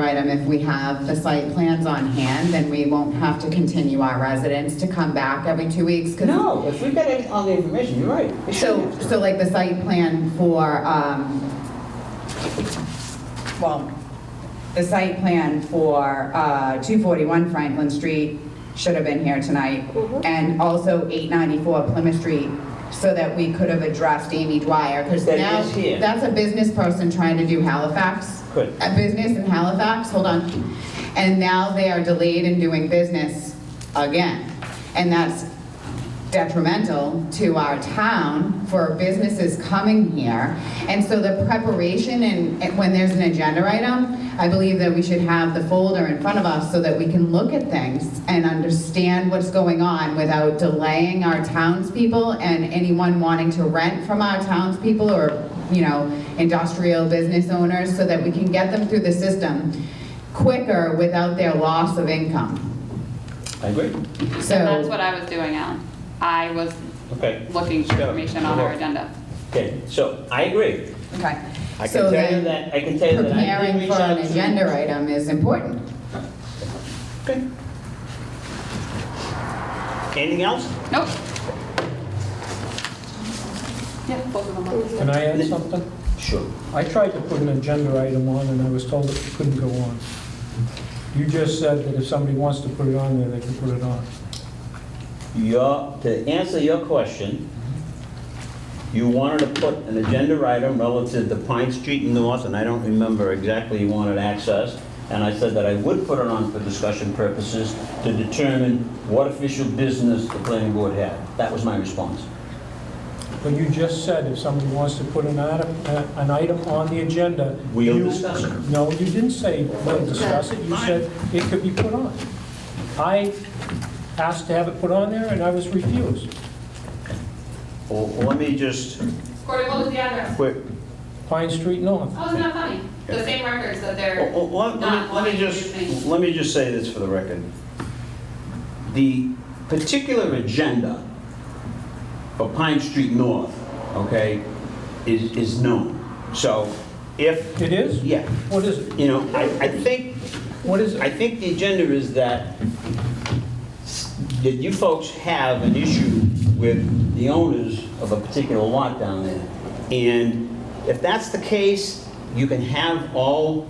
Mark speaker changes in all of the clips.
Speaker 1: item, if we have the site plans on hand, then we won't have to continue our residents to come back every two weeks. 'cause-
Speaker 2: No, if we've got any- all the information, you're right. It
Speaker 1: So,
Speaker 2: shouldn't have to.
Speaker 1: so like the site plan for, um, well, the site plan for, uh, two forty-one Franklin Street should have been here tonight. And also eight ninety-four Plymouth Street, so that we could have addressed Amy Dwyer, because
Speaker 2: That
Speaker 1: now,
Speaker 2: is here.
Speaker 1: that's a business person trying to do Halifax.
Speaker 2: Good.
Speaker 1: A business in Halifax, hold on. And now they are delayed in doing business again. And that's detrimental to our town for businesses coming here. And so the preparation and, and when there's an agenda item, I believe that we should have the folder in front of us so that we can look at things and understand what's going on without delaying our townspeople and anyone wanting to rent from our townspeople or, you know, industrial business owners so that we can get them through the system quicker without their loss of income.
Speaker 2: I agree.
Speaker 1: So.
Speaker 3: That's what I was doing, Alan. I was
Speaker 2: Okay.
Speaker 3: looking for
Speaker 2: Yeah,
Speaker 3: information on
Speaker 2: sure.
Speaker 3: our agenda.
Speaker 2: Okay, so I agree.
Speaker 1: Okay.
Speaker 2: I can
Speaker 1: So
Speaker 2: tell you
Speaker 1: then
Speaker 2: that- I can tell you that I did
Speaker 1: Preparing
Speaker 2: reach
Speaker 1: for
Speaker 2: out
Speaker 1: an
Speaker 2: to-
Speaker 1: agenda item is important.
Speaker 2: Okay. Anything else?
Speaker 3: Nope. Yeah, both of them. are-
Speaker 4: Can I add something?
Speaker 2: Sure.
Speaker 4: I tried to put an agenda item on, and I was told that it couldn't go on. You just said that if somebody wants to put it on there, they can put it on.
Speaker 2: Your, to answer your question, you wanted to put an agenda item relative to Pine Street and North, and I don't remember exactly you wanted access, and I said that I would put it on for discussion purposes to determine what official business the planning board had. That was my response.
Speaker 4: But you just said if somebody wants to put an item, uh, an item on the agenda...
Speaker 2: We'll
Speaker 4: you-
Speaker 2: discuss it.
Speaker 4: No, you didn't say we'll discuss it, you said it could be put on. I asked to have it put on there, and I was refused.
Speaker 2: Well, Let me just,
Speaker 3: Corey, what was the address?
Speaker 2: quick,
Speaker 4: Pine Street North.
Speaker 3: Oh, it's not funny. The same records that they're
Speaker 2: Well, well, Let let
Speaker 3: not
Speaker 2: me- let me
Speaker 3: wanting to
Speaker 2: just,
Speaker 3: change.
Speaker 2: let me just say this for the record. The particular agenda for Pine Street North, okay, is, is known. So if,
Speaker 4: It is?
Speaker 2: yeah,
Speaker 4: What is it?
Speaker 2: you know, I, I think,
Speaker 4: What is
Speaker 2: I
Speaker 4: it?
Speaker 2: think the agenda is that, s- that you folks have an issue with the owners of a particular lot down there. And if that's the case, you can have all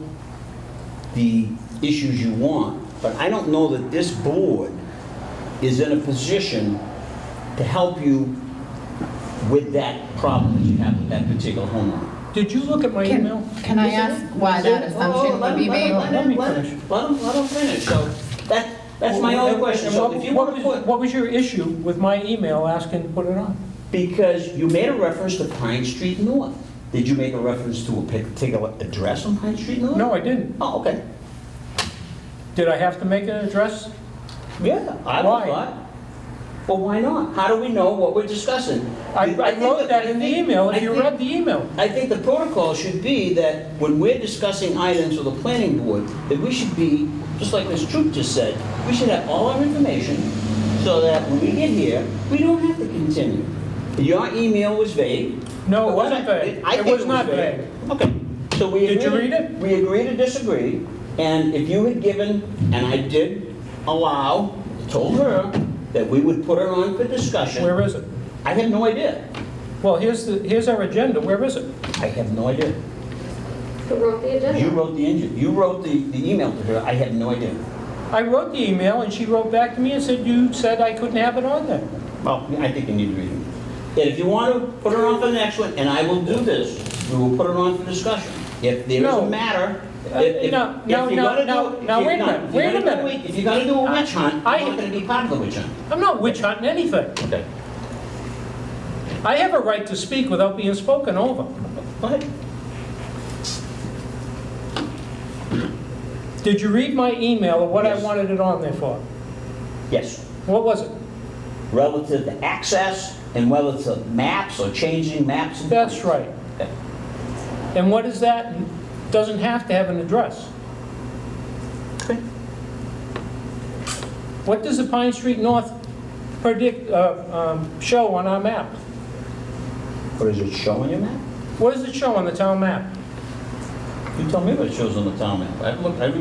Speaker 2: the issues you want, but I don't know that this board is in a position to help you with that problem that you have with that particular homeowner.
Speaker 4: Did you look at my email?
Speaker 1: Can can I
Speaker 2: Oh, Is it-
Speaker 1: ask why
Speaker 2: is it-
Speaker 1: that
Speaker 2: oh,
Speaker 1: assumption
Speaker 2: let
Speaker 1: would be
Speaker 2: him- let him-
Speaker 1: made?
Speaker 4: on. Let me
Speaker 2: let him-
Speaker 4: finish.
Speaker 2: Let him, let him finish, so that, that's my only question, so if you want to
Speaker 4: What was-
Speaker 2: put,
Speaker 4: What was your issue with my email asking to put it on?
Speaker 2: because you made a reference to Pine Street North. Did you make a reference to a particular address on Pine Street North?
Speaker 4: No, I didn't.
Speaker 2: Oh, okay.
Speaker 4: Did I have to make an address?
Speaker 2: Yeah, I
Speaker 4: Why?
Speaker 2: thought. Well, why not? How do we know what we're discussing?
Speaker 4: I I
Speaker 2: think
Speaker 4: wrote that in the
Speaker 2: I think-
Speaker 4: email, if
Speaker 2: I
Speaker 4: you
Speaker 2: think-
Speaker 4: read the email.
Speaker 2: I think the protocol should be that when we're discussing items with the planning board, that we should be, just like Ms. Troop just said, we should have all our information so that when we get here, we don't have to continue. Your email was vague.
Speaker 4: No, it wasn't vague.
Speaker 2: I
Speaker 4: It
Speaker 2: think
Speaker 4: was not vague.
Speaker 2: Okay, so we.
Speaker 4: Did you
Speaker 2: agree-
Speaker 4: read it?
Speaker 2: We agree to disagree, and if you had given, and I did allow, told her that we would put her on for discussion,
Speaker 4: Where is it?
Speaker 2: I have no idea.
Speaker 4: Well, here's the, here's our agenda, where is it?
Speaker 2: I have no idea.
Speaker 5: Who wrote the agenda?
Speaker 2: You wrote the engine, you wrote the, the email to her, I had no idea.
Speaker 4: I wrote the email, and she wrote back to me and said, you said I couldn't have it on there.
Speaker 2: Well, I think you need to read it. And if you want to, put her on for the next one, and I will do this, we will put her on for discussion. If there is
Speaker 4: No.
Speaker 2: a matter, if,
Speaker 4: Uh,
Speaker 2: if.
Speaker 4: no,
Speaker 2: if
Speaker 4: no,
Speaker 2: you're
Speaker 4: no,
Speaker 2: gonna do-
Speaker 4: no,
Speaker 2: if
Speaker 4: no,
Speaker 2: you're-
Speaker 4: wait a
Speaker 2: no,
Speaker 4: minute,
Speaker 2: if
Speaker 4: wait a
Speaker 2: you're gonna do
Speaker 4: minute.
Speaker 2: it- If you're gonna do a witch hunt,
Speaker 4: I-
Speaker 2: I'm not gonna be part of the witch hunt.
Speaker 4: I'm not witch hunting anything.
Speaker 2: Okay.
Speaker 4: I have a right to speak without being spoken over.
Speaker 2: Go ahead.
Speaker 4: Did you read my email of what I
Speaker 2: Yes.
Speaker 4: wanted it on there for?
Speaker 2: Yes,
Speaker 4: What was it?
Speaker 2: relative to access and whether it's a maps or changing maps. and-
Speaker 4: That's right.
Speaker 2: Okay.
Speaker 4: And what is that? Doesn't have to have an address. What does the Pine Street North predict, uh, um, show on our map?
Speaker 2: Or is it showing your map?
Speaker 4: What does it show on the town map?
Speaker 2: You tell me what it shows on the town map. I've looked, I've